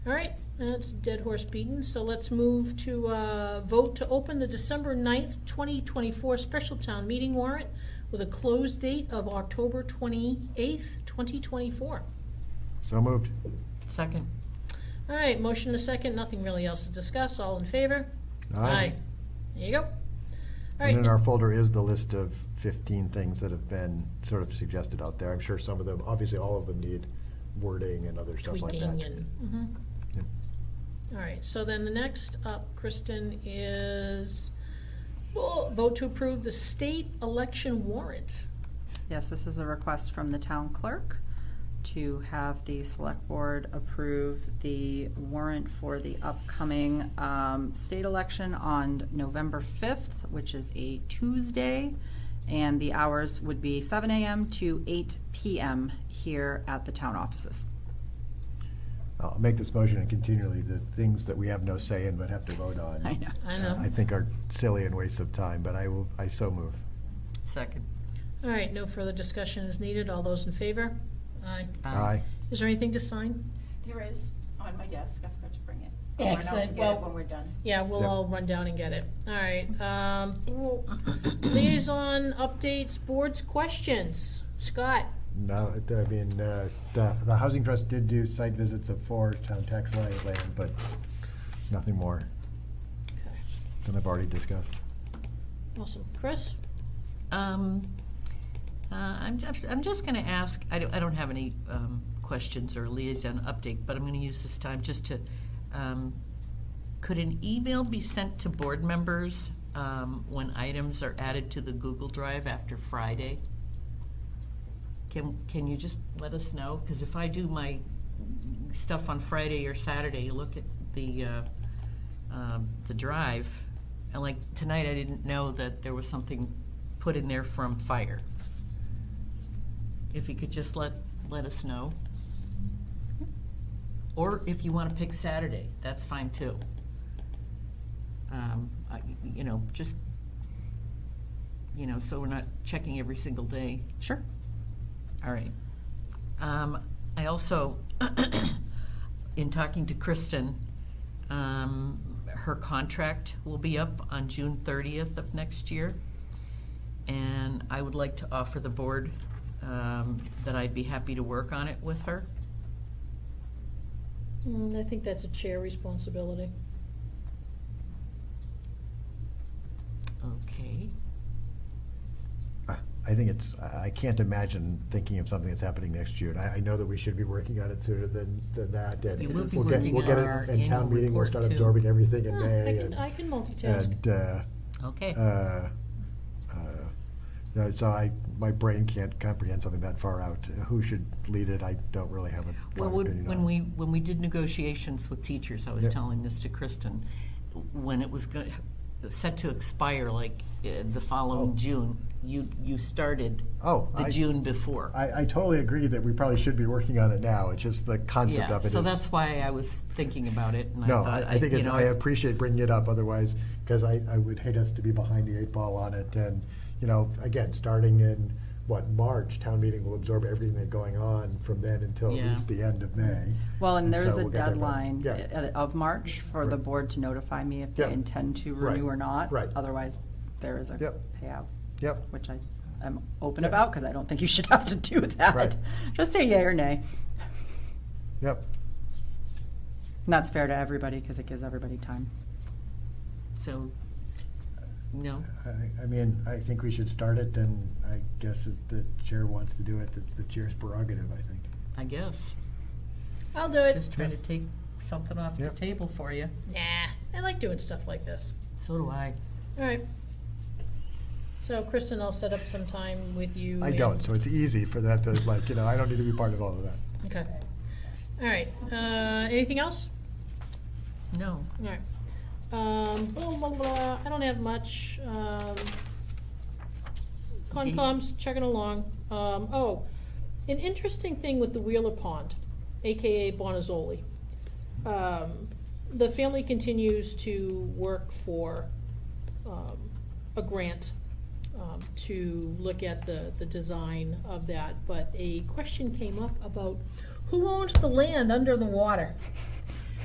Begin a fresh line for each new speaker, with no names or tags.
All right, that's dead horse beaten, so let's move to uh, vote to open the December 9th, 2024 special town meeting warrant with a close date of October 28th, 2024.
So moved.
Second.
All right, motion a second, nothing really else to discuss, all in favor? There you go. All right,
And in our folder is the list of 15 things that have been sort of suggested out there. I'm sure some of them, obviously, all of them need wording and other stuff like that.
tweaking and, mhm.
Yeah.
All right, so then the next up, Kristen, is well, vote to approve the state election warrant.
Yes, this is a request from the town clerk to have the select board approve the warrant for the upcoming um, state election on November 5th, which is a Tuesday. And the hours would be 7 AM to 8 PM here at the town offices.
I'll make this motion and continually, the things that we have no say in but have to vote on.
I know.
I
uh, I
know.
think are silly and waste of time, but I will, I so move.
Second.
All right, no further discussion is needed. All those in favor? Aye.
Um,
Aye.
Is there anything to sign?
There is, on my desk, I forgot to bring it. I'll run out and
Excellent.
get it
Well-
When we're done.
Yeah, we'll
Yep.
all run down and get it. All right. um, Liaison updates, boards, questions. Scott?
No, it- I mean, uh, the, the Housing Trust did do site visits of four town tax lien land, but nothing more than I've already discussed.
Awesome. Chris?
Um, uh, I'm, ju- I'm just going to ask, I don't, I don't have any um, questions or liaison update, but I'm going to use this time just to, um, could an email be sent to board members um, when items are added to the Google Drive after Friday? Can, can you just let us know? Because if I do my stuff on Friday or Saturday, you look at the, uh, um, the drive, and like tonight, I didn't know that there was something put in there from fire. If you could just let, let us know. Or if you want to pick Saturday, that's fine too. Um, I- You know, just, you know, so we're not checking every single day.
Sure.
All right. Um, I also, in talking to Kristen, um, her contract will be up on June 30th of next year. And I would like to offer the board um, that I'd be happy to work on it with her.
Mm, I think that's a chair responsibility.
Okay.
I I think it's, I I can't imagine thinking of something that's happening next June. I, I know that we should be working on it sooner than, than that. and
We will be
we'll get-
working
we'll get
on
it
our
in town
annual
meeting, we'll
report,
start
too.
absorbing everything in
Ah, I
May.
can,
and-
I can multitask.
And, uh,
Okay.
uh, uh, no, so I, my brain can't comprehend something that far out. Who should lead it, I don't really have a
Well,
strong
we-
opinion
when
on.
we, when we did negotiations with teachers, I was
Yeah.
telling this to Kristen, when it was go- set to expire, like uh,
Oh.
the following June, you, you started
Oh,
the
I-
June before.
I, I totally agree that we probably should be working on it now, it's just the concept
Yeah,
of it is.
so that's why I was thinking about it, and I
No,
thought,
I, I think
you
it's,
know,
I appreciate bringing it up, otherwise, because I, I would hate us to be behind the eight ball on it, and, you know, again, starting in, what, March, town meeting will absorb everything that's going on from then until at
Yeah.
least the end of May.
Well, and there
so
is a
we'll get there by-
deadline
Yeah.
i- of March for the
Right.
board to notify me if
Yeah.
they intend to
Right.
renew or not.
Right.
Otherwise, there is a
Yep.
payout,
Yep,
which I am open
Yeah.
about because I don't think you should have to do
Right.
that. Just say yay or nay.
yep,
And that's fair to everybody because it gives everybody time.
So, no,
I, I mean, I think we should start it, and I guess if the chair wants to do it, that's the chair's prerogative, I think.
I guess,
I'll do it.
just trying to take something off the
Yep.
table for you.
Nah, I like doing stuff like this.
So do I.
All right. So Kristen, I'll set up some time with you.
I
and-
don't, so it's easy for that to, like, you know, I don't need to be part of all of that.
Okay. All right. Uh, anything else?
No,
All right. Um, blah, blah, blah. I don't have much. Um, Concom's chugging along. Um, oh, an interesting thing with the Wheeler Pond, AKA Bonazzoli. Um, the family continues to work for um, a grant um, to look at the, the design of that, but a question came up about who owns the land under the water?